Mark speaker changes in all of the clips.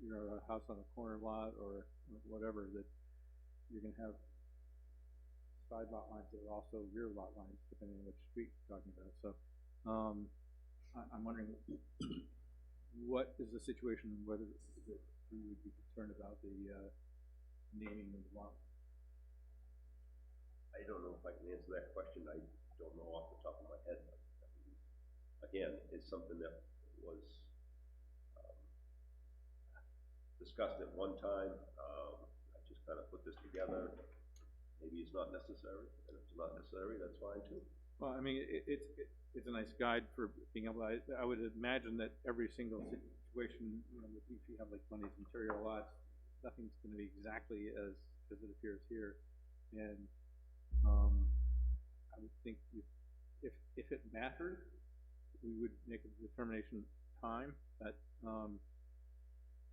Speaker 1: you know, a house on a corner lot or whatever, that you're gonna have side lot lines that are also rear lot lines, depending on which street you're talking about, so, um, I, I'm wondering, what is the situation, whether it's- that we would be concerned about the, uh, naming of the lot?
Speaker 2: I don't know if I can answer that question, I don't know off the top of my head. Again, it's something that was, um, discussed at one time, um, I just kinda put this together. Maybe it's not necessary, and if it's not necessary, that's fine too.
Speaker 1: Well, I mean, it, it's, it- it's a nice guide for being able, I, I would imagine that every single situation, you know, if you have like one of these interior lots, nothing's gonna be exactly as, as it appears here, and, um, I would think you, if, if it mattered, we would make a determination time, but, um,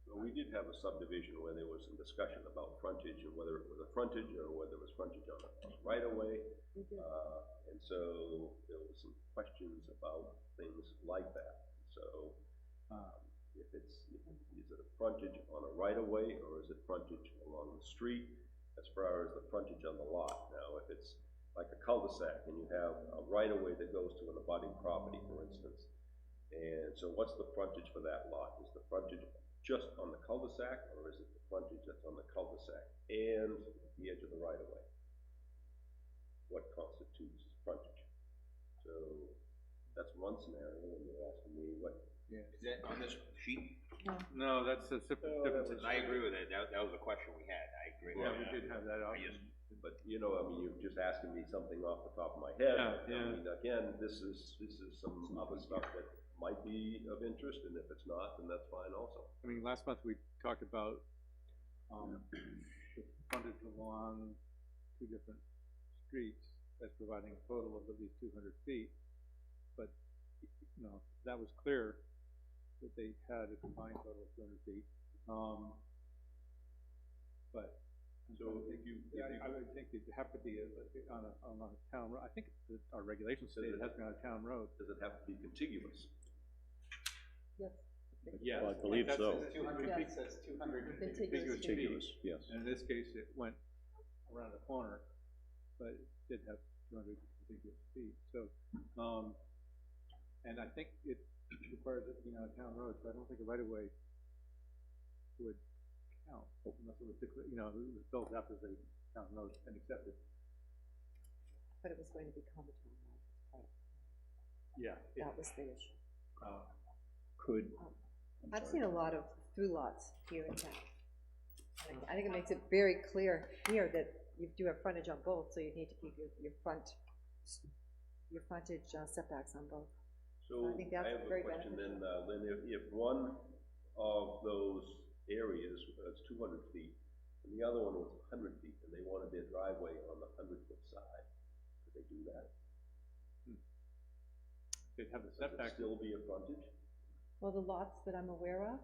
Speaker 2: Well, we did have a subdivision where there was some discussion about frontage and whether it was a frontage or whether it was frontage on a right of way.
Speaker 3: We did.
Speaker 2: Uh, and so there was some questions about things like that. So,
Speaker 1: uh,
Speaker 2: um, if it's, is it a frontage on a right of way or is it frontage along the street? As far as the frontage on the lot, now if it's like a cul-de-sac and you have a right of way that goes to an abutting property, for instance. And so what's the frontage for that lot? Is the frontage just on the cul-de-sac or is it the frontage that's on the cul-de-sac and the edge of the right of way? What constitutes frontage? So that's one scenario and you're asking me what
Speaker 4: Is that on this sheet?
Speaker 1: no, that's a separate,
Speaker 2: No, that
Speaker 1: different,
Speaker 2: was-
Speaker 4: I agree with that, that, that was a question we had, I agree.
Speaker 1: yeah, we did have that
Speaker 4: I
Speaker 1: option.
Speaker 4: just,
Speaker 2: But, you know, I mean, you're just asking me something off the top of my head.
Speaker 1: Yeah, yeah.
Speaker 2: I mean, again, this is, this is some other stuff that might be of interest, and if it's not, then that's fine also.
Speaker 1: I mean, last month we talked about, um, the frontage along two different streets as providing a total of at least two hundred feet. But, you know, that was clear that they had a combined total of two hundred feet, um, but.
Speaker 2: So if you, if
Speaker 1: Yeah,
Speaker 2: you,
Speaker 1: I would think it'd have to be a- on a, on a town road, I think that our regulations say it has to be on a town road.
Speaker 2: does it have to be contiguous?
Speaker 3: Yes,
Speaker 1: Yes.
Speaker 5: I believe so.
Speaker 6: Two hundred feet
Speaker 3: Yes.
Speaker 6: says two hundred
Speaker 3: contiguous to
Speaker 5: Contiguous, yes.
Speaker 1: And in this case, it went around the corner, but it did have two hundred contiguous feet, so, um, and I think it requires it being on a town road, so I don't think a right of way would count, unless it was, decla- you know, it was built up as a town road and accepted.
Speaker 3: but it was going to become a town road.
Speaker 1: Yeah. it-
Speaker 3: That was the issue.
Speaker 1: uh,
Speaker 5: Could,
Speaker 3: I've seen a lot of through lots here in town. And I I think it makes it very clear here that you do have frontage on both, so you need to keep your, your front, your frontage uh, setbacks on both.
Speaker 2: So
Speaker 3: I think
Speaker 2: I
Speaker 3: that's
Speaker 2: have a
Speaker 3: very
Speaker 2: question then, uh, Lynn, if, if one of those areas was two hundred feet, and the other one was hundred feet, and they wanted their driveway on the hundred foot side, could they do that?
Speaker 1: They'd have the
Speaker 2: Does it
Speaker 1: setback,
Speaker 2: still be a frontage?
Speaker 3: Well, the lots that I'm aware of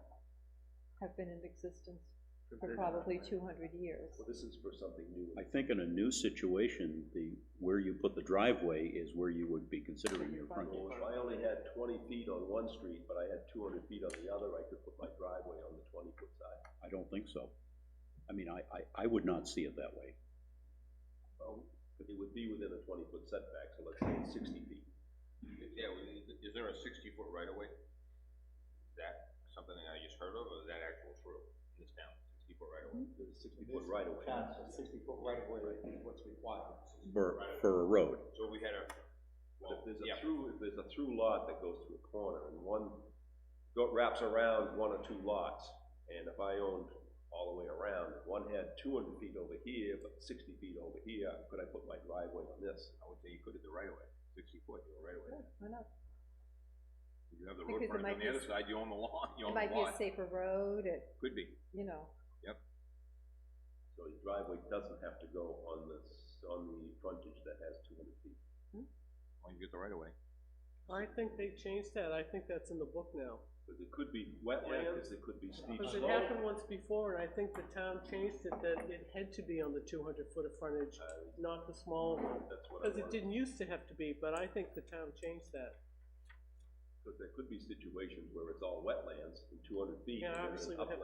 Speaker 3: have been in existence for
Speaker 1: They're-
Speaker 3: probably two hundred years.
Speaker 2: Well, this is for something new.
Speaker 5: I think in a new situation, the, where you put the driveway is where you would be considering your frontage.
Speaker 2: Well, if I only had twenty feet on one street, but I had two hundred feet on the other, I could put my driveway on the twenty foot side.
Speaker 5: I don't think so. I mean, I, I, I would not see it that way.
Speaker 2: Well, it would be within a twenty foot setback, so let's say it's sixty feet.
Speaker 4: yeah, well, is- is there a sixty foot right of way? Is that something that I just heard of, or is that actual true in this town, sixty foot right of way?
Speaker 2: There's sixty foot right away.
Speaker 6: sixty foot right of way is what's required.
Speaker 5: For, for a road,
Speaker 4: So we had a,
Speaker 2: But if
Speaker 4: well,
Speaker 2: there's a
Speaker 4: yeah,
Speaker 2: through, if there's a through lot that goes to a corner and one go, wraps around one or two lots, and if I owned all the way around, and one had two hundred feet over here, but sixty feet over here, could I put my driveway on this?
Speaker 4: I would say you could at the right of way, sixty foot, you're right of way.
Speaker 3: Yeah, Why not?
Speaker 4: You have the
Speaker 3: Because
Speaker 4: road
Speaker 3: it
Speaker 4: frontage
Speaker 3: might
Speaker 4: on
Speaker 3: be
Speaker 4: the other
Speaker 3: s-
Speaker 4: side, you own the lawn, you
Speaker 3: It
Speaker 4: own the
Speaker 3: might be a
Speaker 4: lot,
Speaker 3: safer road, it,
Speaker 4: could be.
Speaker 3: you know,
Speaker 2: So the driveway doesn't have to go on the, s- on the frontage that has two hundred feet.
Speaker 4: Well, you get the right of way.
Speaker 7: I think they changed that, I think that's in the book now.
Speaker 2: Because it could be wetlands, it could be steep
Speaker 7: Because it
Speaker 2: slopes.
Speaker 7: happened once before, and I think the town changed it, that it had to be on the two hundred foot of frontage, not the smaller one.
Speaker 2: That's what I
Speaker 7: Because it
Speaker 2: wanted,
Speaker 7: didn't used to have to be, but I think the town changed that.
Speaker 2: because there could be situations where it's all wetlands and two hundred feet.
Speaker 7: Yeah,
Speaker 2: and then
Speaker 7: obviously
Speaker 2: an
Speaker 7: we'd have to
Speaker 2: upland.